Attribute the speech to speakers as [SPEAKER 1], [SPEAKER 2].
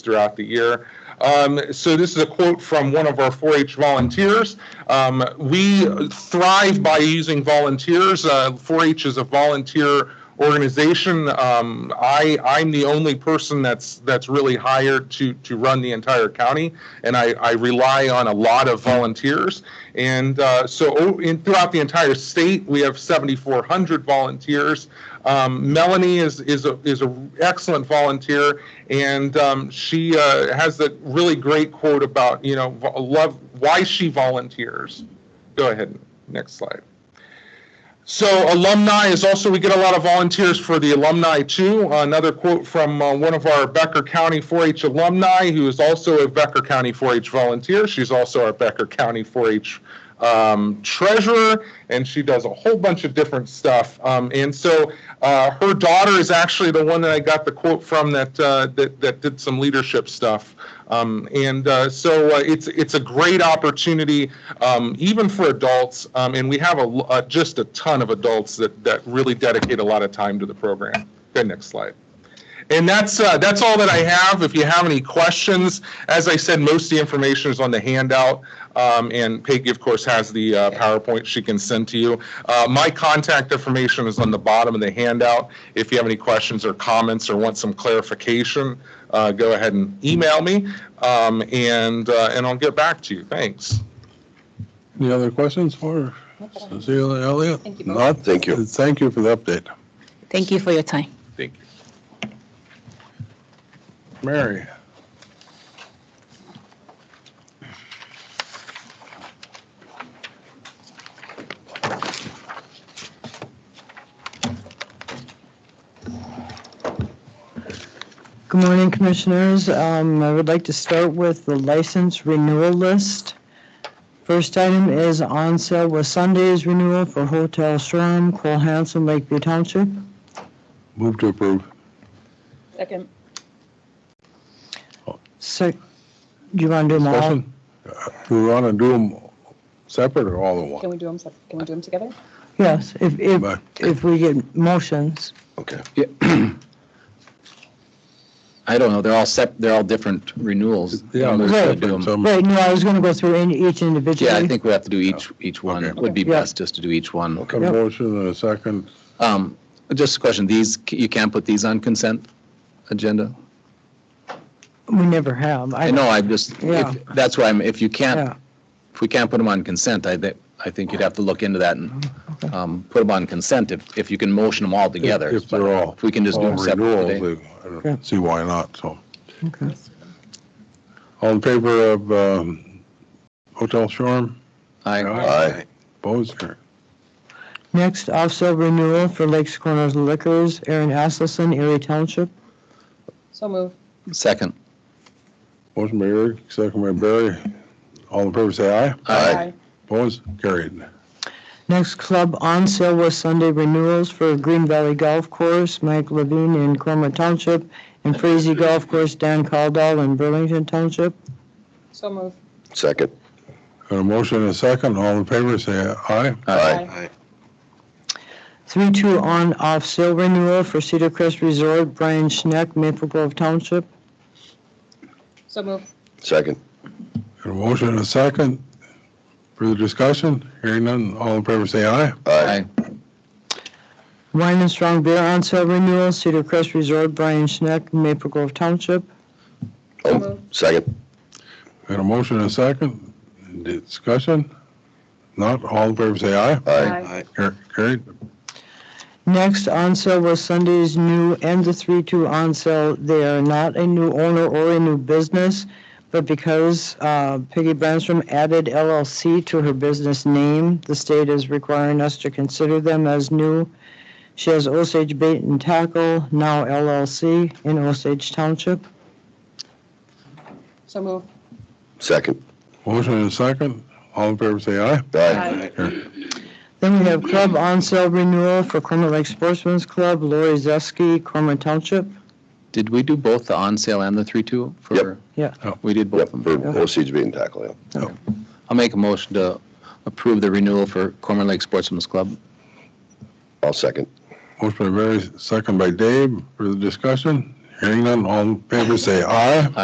[SPEAKER 1] throughout the year. Um, so this is a quote from one of our 4-H volunteers. Um, we thrive by using volunteers. Uh, 4-H is a volunteer organization. Um, I I'm the only person that's that's really hired to to run the entire county, and I, I rely on a lot of volunteers. And uh, so o- in, throughout the entire state, we have 7,400 volunteers. Um, Melanie is is a, is an excellent volunteer, and um, she uh, has a really great quote about you know vo- love why she volunteers. Go ahead, next slide. So alumni is also, we get a lot of volunteers for the alumni too. Uh, Another quote from uh, one of our Becker County 4-H alumni, who is also a Becker County 4-H volunteer. She's also our Becker County 4-H um, treasurer, and she does a whole bunch of different stuff. Um, And so uh, her daughter is actually the one that I got the quote from that, uh, that that did some leadership stuff. Um, and uh, so uh, it's it's a great opportunity, um, even for adults. Um, and we have a, l- uh, just a ton of adults that that really dedicate a lot of time to the program. Go next slide. And that's uh, that's all that I have. If you have any questions, as I said, most of the information is on the handout. Um, and Peggy, of course, has the uh, PowerPoint she can send to you. Uh, my contact information is on the bottom of the handout. If you have any questions or comments or want some clarification, uh, go ahead and email me, um, and uh, and I'll get back to you. Thanks.
[SPEAKER 2] Any other questions for Cecilia Elliott?
[SPEAKER 3] Thank you both.
[SPEAKER 2] Not?
[SPEAKER 4] Thank you.
[SPEAKER 2] Thank you for the update.
[SPEAKER 3] Thank you for your time.
[SPEAKER 1] Thank you.
[SPEAKER 2] Mary?
[SPEAKER 5] Good morning, Commissioners. Um, I would like to start with the license renewal list. First item is on sale with Sunday's renewal for Hotel Shram, Cole Hanson, Lakeview Township.
[SPEAKER 2] Move to approve.
[SPEAKER 3] Second.
[SPEAKER 5] Sec, do you want to do them all?
[SPEAKER 2] Discussion? Uh, Do we want to do them separate or all in one?
[SPEAKER 3] Can we do them, sep- can we do them together?
[SPEAKER 5] Yes, if, if,
[SPEAKER 2] Bye.
[SPEAKER 5] if we get motions.
[SPEAKER 4] Okay.
[SPEAKER 6] I don't know, they're all sep, they're all different renewals.
[SPEAKER 2] Yeah,
[SPEAKER 6] We
[SPEAKER 2] there's
[SPEAKER 6] should do
[SPEAKER 2] different,
[SPEAKER 6] 'em.
[SPEAKER 2] some-
[SPEAKER 5] Right, no, I was going to go through in- each individually.
[SPEAKER 6] Um, Yeah, I think we have to do each, each one.
[SPEAKER 2] Oh. Okay.
[SPEAKER 6] It would be
[SPEAKER 5] Yeah.
[SPEAKER 6] best just to do each one.
[SPEAKER 2] A motion and a second.
[SPEAKER 6] Um, Just a question, these, you can't put these on consent agenda?
[SPEAKER 5] We never have.
[SPEAKER 6] I know, I'm just, if-
[SPEAKER 5] Yeah.
[SPEAKER 6] that's why I'm, if you
[SPEAKER 5] Yeah,
[SPEAKER 6] can't, if we can't put them on consent, I think, I think you'd have to look into that and um, put them on consent if, if you can motion them all together.
[SPEAKER 2] If they're all.
[SPEAKER 6] If we can just do
[SPEAKER 2] all
[SPEAKER 6] them separate
[SPEAKER 2] renewals,
[SPEAKER 6] today.
[SPEAKER 2] they- I don't
[SPEAKER 5] Yeah.
[SPEAKER 2] See why not, so.
[SPEAKER 5] okay.
[SPEAKER 2] All in favor of um, Hotel Shoreham?
[SPEAKER 6] I,
[SPEAKER 4] Aye.
[SPEAKER 2] Opposed? Carried.
[SPEAKER 5] Next, off-sale renewal for Lakes Corners Liquors, Aaron Asleson, Erie Township.
[SPEAKER 3] So move.
[SPEAKER 6] second,
[SPEAKER 2] Motion by Eric, second by Barry. All in favor, say aye.
[SPEAKER 6] Aye.
[SPEAKER 2] Opposed? Carried.
[SPEAKER 5] Next club on sale was Sunday renewals for Green Valley Golf Course, Mike Levine in Cromer Township, and Frazee Golf Course, Dan Caldwell in Burlington Township.
[SPEAKER 3] So move.
[SPEAKER 4] Second.
[SPEAKER 2] Got a motion and a second. All in favor, say aye.
[SPEAKER 3] Aye.
[SPEAKER 5] Three-two on-off sale renewal for Cedar Crest Resort, Brian Schneck, Maple Grove Township.
[SPEAKER 3] So move.
[SPEAKER 4] Second.
[SPEAKER 2] Got a motion and a second. Further discussion? Hearing none. All in favor, say aye.
[SPEAKER 4] Aye.
[SPEAKER 6] Aye.
[SPEAKER 5] Wine and strong beer on sale renewal, Cedar Crest Resort, Brian Schneck, Maple Grove Township.
[SPEAKER 3] So
[SPEAKER 4] Oh,
[SPEAKER 3] moved.
[SPEAKER 4] second.
[SPEAKER 2] Got a motion and a second. Discussion? Not. All in favor, say aye.
[SPEAKER 4] Aye.
[SPEAKER 2] Car- Carried.
[SPEAKER 5] Next on sale was Sunday's new and the three-two on sale. They are not a new owner or a new business, but because uh, Peggy Branstrom added LLC to her business name, the state is requiring us to consider them as new. She has Osage Bait and Tackle, now LLC, in Osage Township.
[SPEAKER 3] So move.
[SPEAKER 4] Second.
[SPEAKER 2] Motion and a second. All in favor, say aye.
[SPEAKER 4] Aye.
[SPEAKER 5] Then we have club on sale renewal for Cormorant Lake Sportsman's Club, Lori Zeski, Cormorant Township.
[SPEAKER 6] Did we do both the on-sale and the three-two? for? Oh,
[SPEAKER 5] Yep.
[SPEAKER 2] Yeah.
[SPEAKER 6] We did both
[SPEAKER 4] Yep,
[SPEAKER 6] of them.
[SPEAKER 4] for proceeds being tackled, yeah.
[SPEAKER 6] I'll make a motion to approve the renewal for Cormorant Lake Sportsman's Club.
[SPEAKER 4] I'll second.
[SPEAKER 2] Motion by Barry, second by Dave. Further discussion? Hearing none. All in favor, say aye.